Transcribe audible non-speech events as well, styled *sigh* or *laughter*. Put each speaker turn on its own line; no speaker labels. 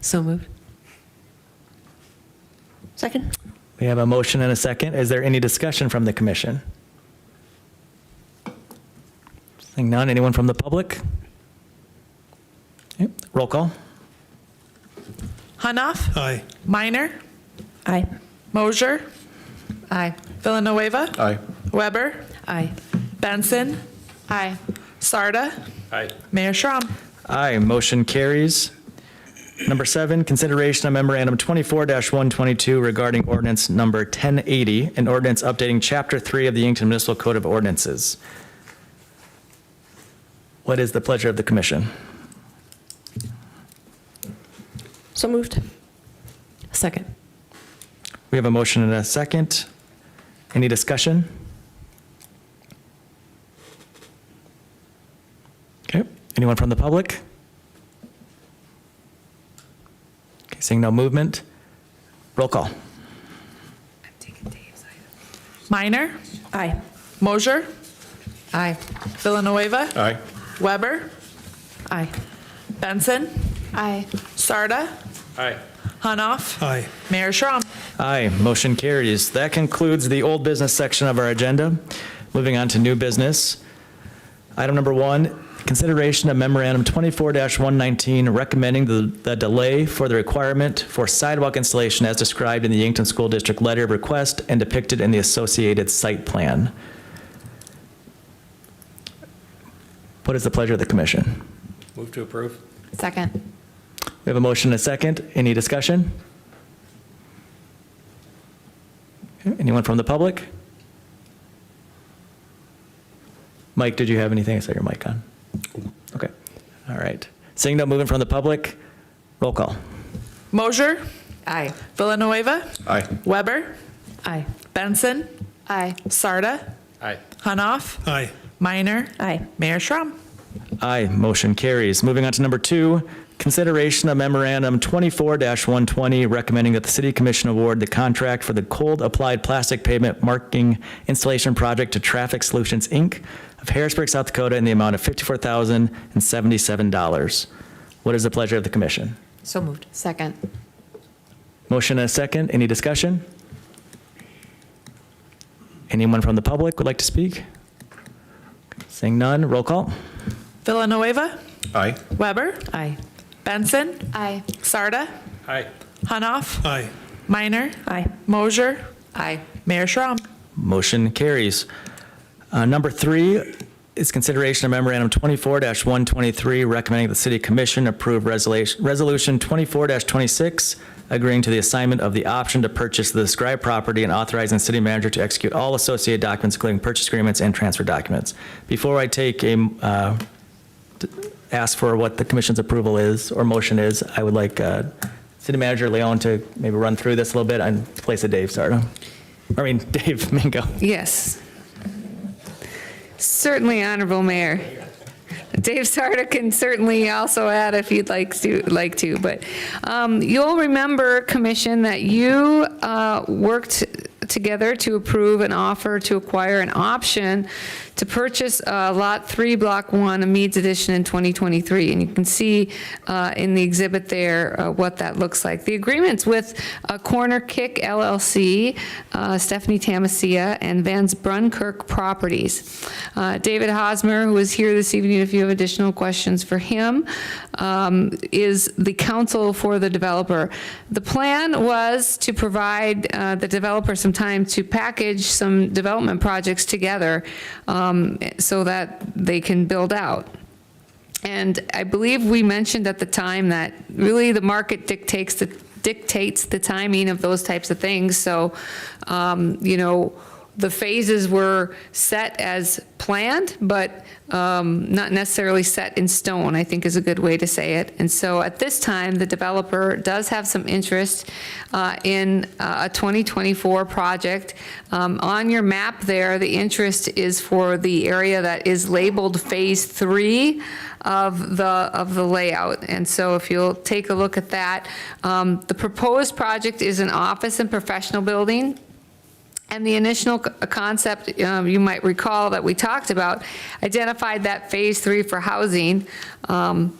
So moved.
Second?
We have a motion and a second. Is there any discussion from the commission? Seeing none, anyone from the public? Okay, Roll call.
Hanoff.
Aye.
Minor.
Aye.
Mosier.
Aye.
Villanueva.
Aye.
Weber.
Aye.
Benson.
Aye.
Sarda.
Aye.
Mayor Schram.
Aye, motion carries. Number seven, consideration of memorandum 24-122 regarding ordinance number 1080, an ordinance updating Chapter 3 of the Yankton Municipal Code of Ordinances. What is the pleasure of the commission?
So moved?
Second.
We have a motion and a second. Any discussion? Okay, anyone from the public? Okay, seeing no movement. Roll call.
Minor.
Aye.
Mosier.
Aye.
Villanueva.
Aye.
Weber.
Aye.
Benson.
Aye.
Sarda.
Aye.
Hanoff.
Aye.
Mayor Schram.
Aye, motion carries. That concludes the old business section of our agenda. Moving on to new business. Item number one, consideration of memorandum 24-119 recommending the the delay for the requirement for sidewalk installation as described in the Yankton School District Letter of Request and depicted in the associated site plan. What is the pleasure of the commission?
Move to approve.
Second.
We have a motion and a second. Any discussion? Anyone from the public? Mike, did you have anything? I saw your mic on. Okay, all right. Seeing no movement from the public, roll call.
Mosier.
Aye.
Villanueva.
Aye.
Weber.
Aye.
Benson.
Aye.
Sarda.
Aye.
Hanoff.
Aye.
Minor.
Aye.
Mayor Schram.
Aye, motion carries. Moving on to number two, consideration of memorandum 24-120 recommending that the city commission award the contract for the cold applied plastic pavement marking installation project to Traffic Solutions, Inc. of Harrisburg, South Dakota in the amount of $54,077. What is the pleasure of the commission?
So moved. Second.
Motion and a second. Any discussion? Anyone from the public would like to speak? Seeing none, roll call.
Villanueva.
Aye.
Weber.
Aye.
Benson.
Aye.
Sarda.
Aye.
Hanoff.
Aye.
Minor.
Aye.
Mosier.
Aye.
Mayor Schram.
Motion carries. Uh, Number three is consideration of memorandum 24-123 recommending that the city commission approve resolution Resolution 24-26 agreeing to the assignment of the option to purchase the described property and authorizing the city manager to execute all associated documents, including purchase agreements and transfer documents. Before I take a, uh, t- ask for what the commission's approval is or motion is, I would like uh, city manager Leon to maybe run through this a little bit and place of Dave Sardo. I mean, *laughs* Dave Mingo.
Yes. Certainly, Honorable Mayor. Dave Sarda can certainly also add if you'd like to, like to, but um, you'll remember, Commission, that you uh, worked together to approve an offer to acquire an option to purchase uh, Lot 3, Block 1, a Meads Edition in 2023. And you can see uh, in the exhibit there uh, what that looks like. The agreement's with uh, Corner Kick LLC, uh, Stephanie Tamasia, and Vans Brunkirk Properties. Uh, David Hosmer, who is here this evening, if you have additional questions for him, um, is the counsel for the developer. The plan was to provide uh, the developer some time to package some development projects together um, so that they can build out. And I believe we mentioned at the time that really the market dictates, the dictates the timing of those types of things. So, um, you know, the phases were set as planned, but um, not necessarily set in stone, I think is a good way to say it. And so at this time, the developer does have some interest uh, in uh, a 2024 project. Um, On your map there, the interest is for the area that is labeled Phase 3 of the, of the layout. And so if you'll take a look at that, um, the proposed project is an office and professional building. And the initial c- concept, um, you might recall that we talked about, identified that Phase 3 for housing. Um,